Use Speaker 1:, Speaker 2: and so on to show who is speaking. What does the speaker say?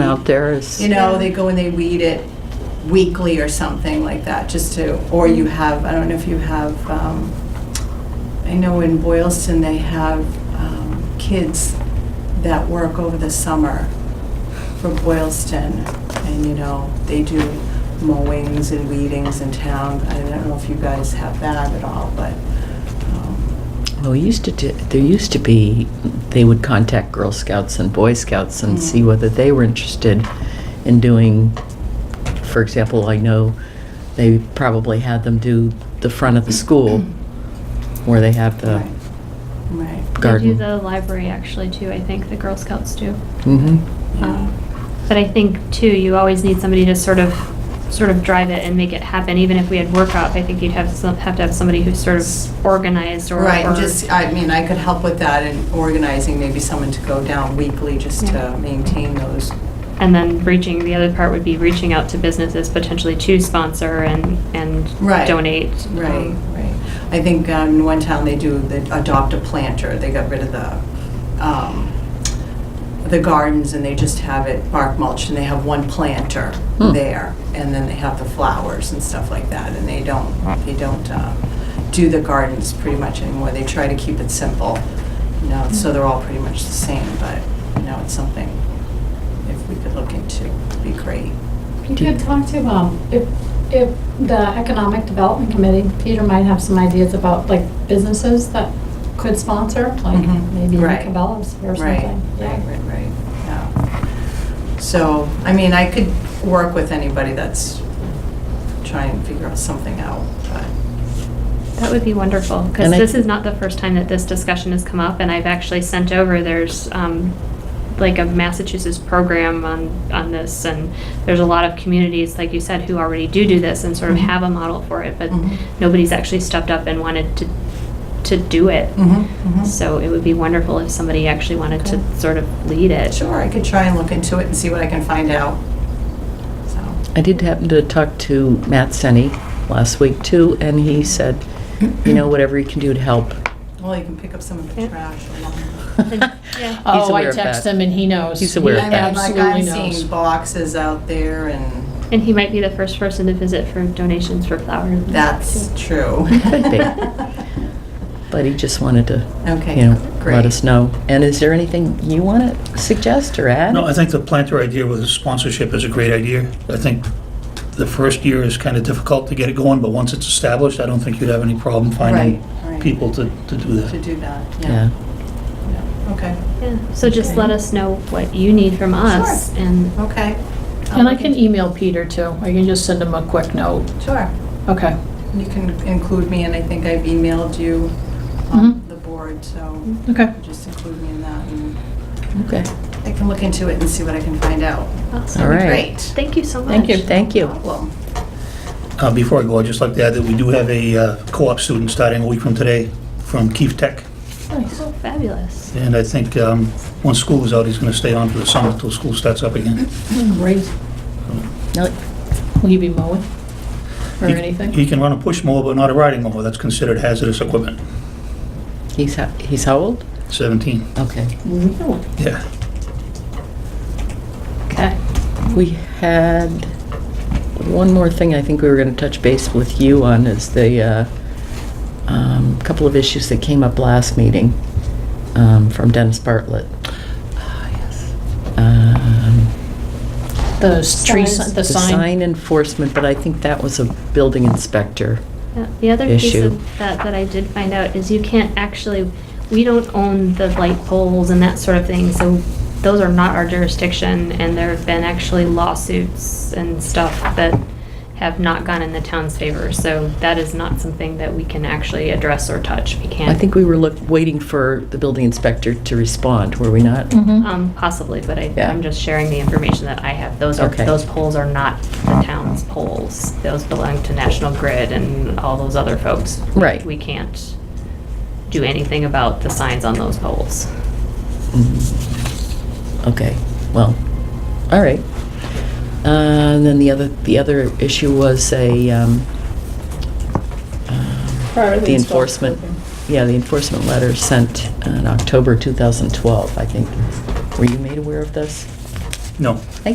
Speaker 1: out there is,
Speaker 2: You know, they go and they weed it weekly or something like that, just to, or you have, I don't know if you have, um, I know in Boylston, they have um, kids that work over the summer for Boylston, and, you know, they do mowings and weedings in town. I don't know if you guys have that at all, but, um,
Speaker 1: well, we used to, do- there used to be, they would contact Girl Scouts and Boy Scouts
Speaker 2: Mm.
Speaker 1: and see whether they were interested in doing, for example, I know they probably had them do the front of the school where they have the
Speaker 2: Mm. right, right.
Speaker 1: garden.
Speaker 3: They do the library actually too, I think, the Girl Scouts do.
Speaker 1: Mhm.
Speaker 2: yeah.
Speaker 3: Um, But I think too, you always need somebody to sort of, sort of drive it and make it happen. Even if we had work up, I think you'd have, some- have to have somebody who's sort of organized or.
Speaker 2: Right, and
Speaker 3: or-
Speaker 2: just, I mean, I could help with that and organizing maybe someone to go down weekly just
Speaker 3: Yeah.
Speaker 2: to maintain those.
Speaker 3: And then reaching, the other part would be reaching out to businesses potentially to sponsor and, and
Speaker 2: Right.
Speaker 3: donate.
Speaker 2: Right,
Speaker 3: Um,
Speaker 2: right. I think um, in one town they do, they adopt a planter. They got rid of the, um, the gardens and they just have it bark mulched and they have one planter
Speaker 1: Hmm.
Speaker 2: there. And then they have the flowers and stuff like that. And they don't, they don't uh, do the gardens pretty much anymore. They try to keep it simple, you know, so they're all pretty much the same. But, you know, it's something if we could look into, it'd be great.
Speaker 4: You could talk to, um, if, if the Economic Development Committee, Peter might have some ideas about, like, businesses that could sponsor, like,
Speaker 2: Mhm.
Speaker 4: maybe
Speaker 2: Right.
Speaker 4: Cabela's or
Speaker 2: Right,
Speaker 4: something.
Speaker 2: right,
Speaker 4: Yeah.
Speaker 2: right, right, yeah. So, I mean, I could work with anybody that's trying to figure out something out, but,
Speaker 3: That would be wonderful, because
Speaker 1: And I-
Speaker 3: this is not the first time that this discussion has come up, and I've actually sent over, there's um, like a Massachusetts program on, on this, and there's a lot of communities, like you said, who already do do this and sort of
Speaker 2: Mhm.
Speaker 3: have a model for it, but
Speaker 2: Mhm.
Speaker 3: nobody's actually stepped up and wanted to, to do it.
Speaker 2: Mm-hmm.
Speaker 3: So it would be wonderful if somebody actually wanted to sort of lead it.
Speaker 2: Sure, I could try and look into it and see what I can find out, so.
Speaker 1: I did happen to talk to Matt Senni last week too, and he said, you know, whatever he can do to help.
Speaker 2: Well, you can pick up some of the
Speaker 3: Yeah.
Speaker 2: trash along the
Speaker 3: Yeah.
Speaker 1: He's
Speaker 5: Oh, I
Speaker 1: aware of
Speaker 5: text
Speaker 1: that.
Speaker 5: him and he knows.
Speaker 1: He's aware of
Speaker 5: He
Speaker 1: that.
Speaker 2: I mean, like, I'm
Speaker 5: absolutely knows.
Speaker 2: seeing boxes out there and
Speaker 3: And he might be the first person to visit for donations for flowers.
Speaker 2: that's true.
Speaker 1: Could be. But he just wanted to,
Speaker 2: Okay,
Speaker 1: you know, let
Speaker 2: great.
Speaker 1: us know. And is there anything you want to suggest or add?
Speaker 6: No, I think the planter idea with the sponsorship is a great idea. I think the first year is kind of difficult to get it going, but once it's established, I don't think you'd have any problem finding
Speaker 2: Right, right.
Speaker 6: people to, to do
Speaker 2: To
Speaker 6: that.
Speaker 2: do that,
Speaker 1: Yeah.
Speaker 2: yeah, yeah, okay,
Speaker 3: Yeah, so just
Speaker 2: Okay.
Speaker 3: let us know what you need from us and
Speaker 2: okay. I'll
Speaker 5: And I
Speaker 2: look
Speaker 5: can e-
Speaker 2: into-
Speaker 5: email Peter too. I can just send him a quick note.
Speaker 2: Sure.
Speaker 5: Okay.
Speaker 2: You can include me, and I think I've emailed you
Speaker 5: Mm-hmm.
Speaker 2: um, the board, so
Speaker 5: Okay.
Speaker 2: just include me in that, and
Speaker 1: Okay.
Speaker 2: I can look into it and see what I can find out.
Speaker 3: Awesome.
Speaker 1: All right.
Speaker 2: Great.
Speaker 3: Thank you so much.
Speaker 1: Thank you, thank you.
Speaker 2: Problem.
Speaker 6: Uh, Before I go, I'd just like to add that we do have a uh, co-op student starting a week from today from Keefe Tech.
Speaker 5: Nice.
Speaker 3: Oh, Fabulous.
Speaker 6: And I think um, once school is out, he's going to stay on for the summer until school starts up again.
Speaker 5: Great.
Speaker 1: No,
Speaker 5: Will you be mowing or
Speaker 6: He-
Speaker 5: anything?
Speaker 6: He can run a push mower, but not a riding mower. That's considered hazardous equipment.
Speaker 1: He's, ho- he's how old?
Speaker 6: 17,
Speaker 1: Okay.
Speaker 5: Really?
Speaker 6: yeah.
Speaker 5: Okay.
Speaker 1: We had one more thing I think we were going to touch base with you on is the uh, um, couple of issues that came up last meeting um, from Dennis Bartlett. Um,
Speaker 5: The s- tree,
Speaker 4: Signs.
Speaker 5: si- the
Speaker 1: The
Speaker 5: sign.
Speaker 1: sign enforcement, but I think that was a building inspector.
Speaker 3: Yeah, The other piece
Speaker 1: Issue.
Speaker 3: of that that I did find out is you can't actually, we don't own the light poles and that sort of thing, so those are not our jurisdiction, and there have been actually lawsuits and stuff that have not gone in the town's favor, so that is not something that we can actually address or touch. We can't.
Speaker 1: I think we were look, waiting for the building inspector to respond, were we not?
Speaker 5: Mhm.
Speaker 3: Um, possibly, but I,
Speaker 1: Mm-hmm. Yeah.
Speaker 3: I'm just sharing the information that I have. Those are,
Speaker 1: Okay.
Speaker 3: those poles are not the town's poles. Those belong to National Grid and all those other folks.
Speaker 1: Right.
Speaker 3: We can't do anything about the signs on those poles.
Speaker 1: Okay, well, all right. Uh, And then the other, the other issue was a, um, the enforcement, yeah, the enforcement letter sent in October 2012, I think. Were you made aware of this?
Speaker 6: No,